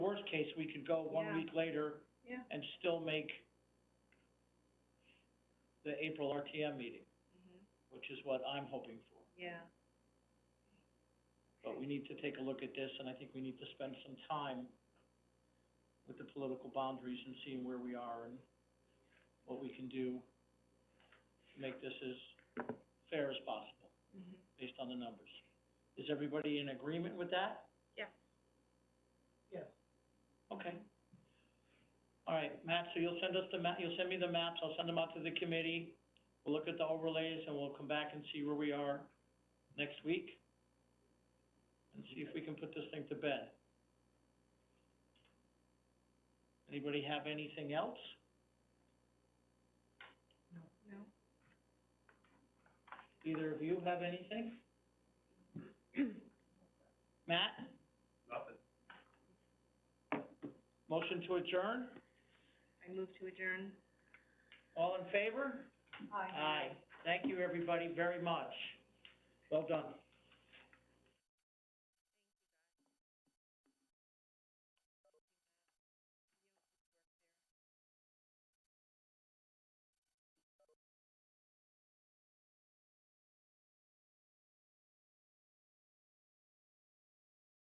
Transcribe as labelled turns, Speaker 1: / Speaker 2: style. Speaker 1: worst case, we could go one
Speaker 2: Yeah.
Speaker 1: week later
Speaker 2: Yeah.
Speaker 1: and still make the April RTM meeting,
Speaker 2: Mm-hmm.
Speaker 1: which is what I'm hoping for.
Speaker 2: Yeah.
Speaker 1: But we need to take a look at this, and I think we need to spend some time with the political boundaries and seeing where we are and what we can do to make this as fair as possible,
Speaker 2: Mm-hmm.
Speaker 1: based on the numbers. Is everybody in agreement with that?
Speaker 2: Yeah.
Speaker 1: Yes. Okay. All right, Matt, so you'll send us the ma- you'll send me the maps, I'll send them out to the committee. We'll look at the overlays and we'll come back and see where we are next week and see if we can put this thing to bed. Anybody have anything else?
Speaker 2: No?
Speaker 1: Either of you have anything? Matt? Nothing. Motion to adjourn?
Speaker 2: I move to adjourn.
Speaker 1: All in favor? Aye. Thank you, everybody, very much. Well done.